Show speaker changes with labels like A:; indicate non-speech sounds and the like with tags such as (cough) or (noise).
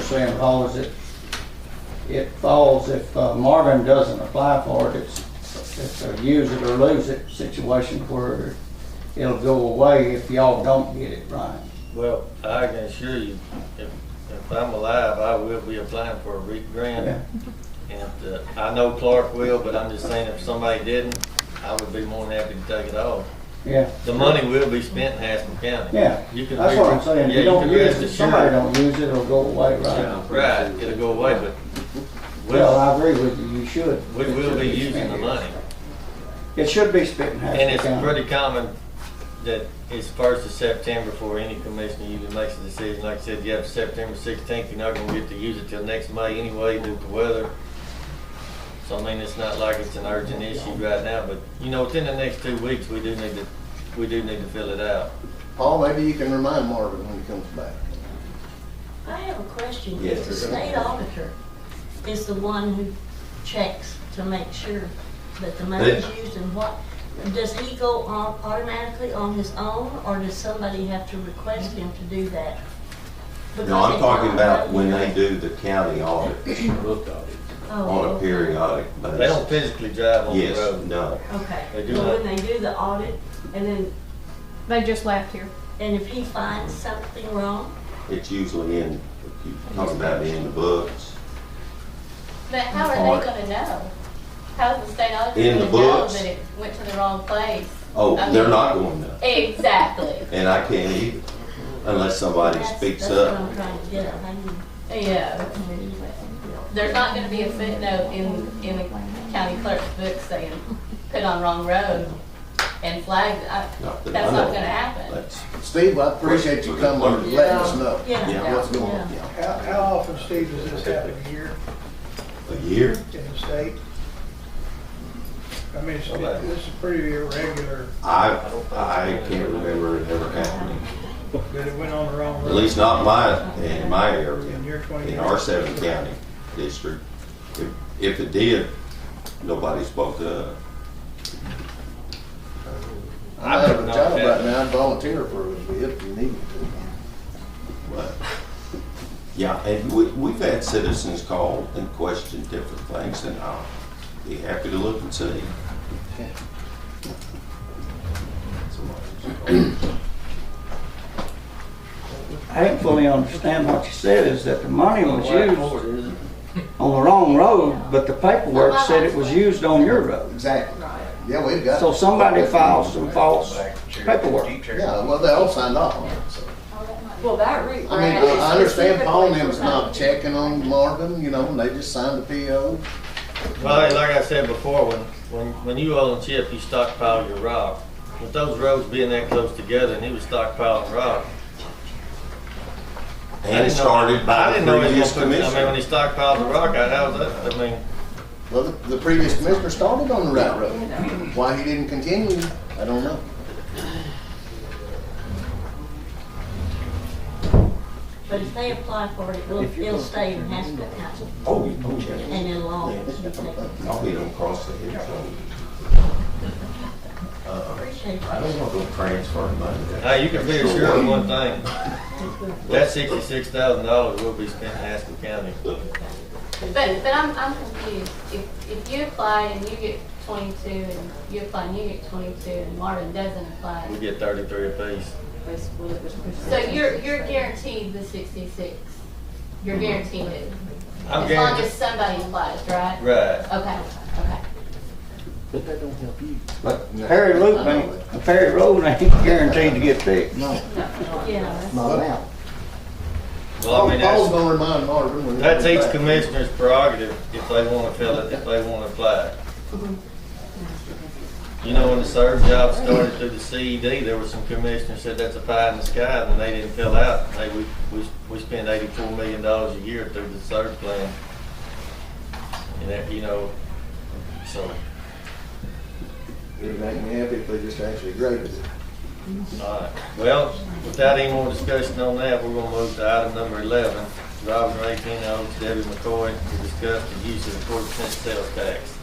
A: Sam Hall is it, it falls, if uh, Marvin doesn't apply for it, it's, it's a use it or lose it situation where it'll go away if y'all don't get it right.
B: Well, I can assure you, if, if I'm alive, I will be applying for a REAP grant. And uh, I know Clark will, but I'm just saying if somebody didn't, I would be more than happy to take it off.
A: Yeah,
B: The money will be spent in Haskell County.
A: yeah,
B: You can
A: that's what I'm saying, if
B: Yeah,
A: you don't
B: can
A: use
B: rest
A: it,
B: assured.
A: somebody don't use it, it'll go away, right?
B: Yeah, Right, it'll go away, but
A: Well,
B: we'll,
A: I agree with you, you should.
B: we
A: It
B: will
A: should
B: be using
A: spent
B: the
A: here.
B: money.
A: It should be spent in Haskell
B: And it's
A: County.
B: pretty common that it's first of September before any commissioner even makes a decision. Like I said, you have September sixteenth, you're not gonna get to use it till next May anyway due to weather. So I mean, it's not like it's an urgent issue right now, but you know, within the next two weeks, we do need to, we do need to fill it out.
C: Paul, maybe you can remind Marvin when he comes back.
D: I have a question.
C: Yes,
D: The
C: sir.
D: state auditor is the one who checks to make sure that the money's used and what, does he go on automatically on his own, or does somebody have to request him to do that?
E: No, I'm
D: Because
E: talking
D: it's
E: about
D: not-
E: when they do the county audit
D: Oh,
E: on a
D: okay.
E: periodic basis.
B: They don't physically drive on the
E: Yes,
B: road.
E: no.
D: Okay.
B: They do
D: Well,
B: not.
D: When they do the audit, and then,
F: They just left here.
D: and if he finds something wrong,
E: It's usually in, if you talk about it in the books.
G: But how are
E: Or-
G: they gonna know? How's the state auditor
E: In the
G: gonna know
E: books.
G: that it went to the wrong place?
E: Oh,
G: I
E: they're
G: mean-
E: not going to,
G: Exactly, (laughs)
E: and I can't either, unless somebody
D: that's,
E: speaks
D: that's what
E: up.
D: I'm trying to get at. How do you-
G: yeah. There's not gonna be a footnote in, in the county clerk's book saying, put on wrong road and flag, I,
E: Not that I
G: that's
E: know
G: not
E: of.
G: gonna happen.
E: That's-
C: Steve, I appreciate you coming and letting
H: Um,
C: us know
D: Yeah.
C: what's going on.
I: How, how often, Steve, does this happen a year
E: A year?
I: in the state? I mean, it's- this is pretty irregular,
E: I, I can't remember it ever happening,
I: but it went on the wrong road.
E: at least not my, in my
I: In
E: area,
I: your twenty.
E: in our seven county district. If, if it did, nobody spoke up.
C: I have a
B: No,
C: job
B: that-
C: right now, I'd volunteer for it if you need me to.
E: But, yeah, and we, we've had citizens call and question different things, and I'll be happy to look and see.
A: I fully understand what you said, is that the money was used on the wrong road, but the paperwork said it was used on your road.
C: Exactly. Yeah, we've got.
A: So somebody files some false paperwork.
C: Yeah, well, they all signed off on it, so.
H: Well, that route.
C: I mean, I I understand Paul and them is not checking on Marvin, you know, and they just signed a PO.
B: Well, hey, like I said before, when, when, when you oil and chip, you stockpile your rock. With those roads being that close together and he was stockpiling rock, I
E: And it
B: didn't know-
E: started
B: I
E: by
B: didn't
E: the
B: know he
E: previous
B: was gonna put- I mean, when
E: commission.
B: he stockpiled the rock, I, how was that, I mean,
C: Well, the- the previous commissioner started on the right road. Why he didn't continue, I don't know.
D: but if they apply for it, it'll, it'll stay in Haskell County.
E: Oh, you don't check.
D: and in law. Appreciate
E: No, we don't cross the hill zone.
D: it.
E: I don't want to transfer money.
B: hey, you can be assured of one thing. That sixty-six thousand dollars will be spent in Haskell County.
G: But, but I'm, I'm confused. If, if you apply and you get twenty-two, and you apply and you get twenty-two, and Marvin doesn't
B: We
G: apply,
B: get thirty-three apiece.
G: so you're, you're guaranteed the sixty-six. You're
E: Mm-hmm.
G: guaranteed it.
B: I'm
G: As long
B: guaranteed,
G: as somebody applies, right?
B: right.
G: Okay, okay.
A: But Harry Loop ain't, Perry Road ain't guaranteed to get fixed.
D: Yeah.
C: Not now.
B: Well, I
C: Paul's
B: mean, that's,
C: gonna remind Marvin when. he
B: that's
C: comes
B: each
C: back.
B: commissioner's prerogative if they wanna fill it, if they wanna apply. You know, when the surge job started through the CED, there were some commissioners said that's a pie in the sky, and they didn't fill out. Hey, we, we, we spend eighty-four million dollars a year through the surge plan. And that, you know, so,
C: It'd make me happy if they just actually graded it.
B: all right. Well, without any more discussion on that, we're gonna move to item number eleven. Robin Ray, Ken Owens, Debbie McCoy, to discuss the use of the quarter percent sales tax.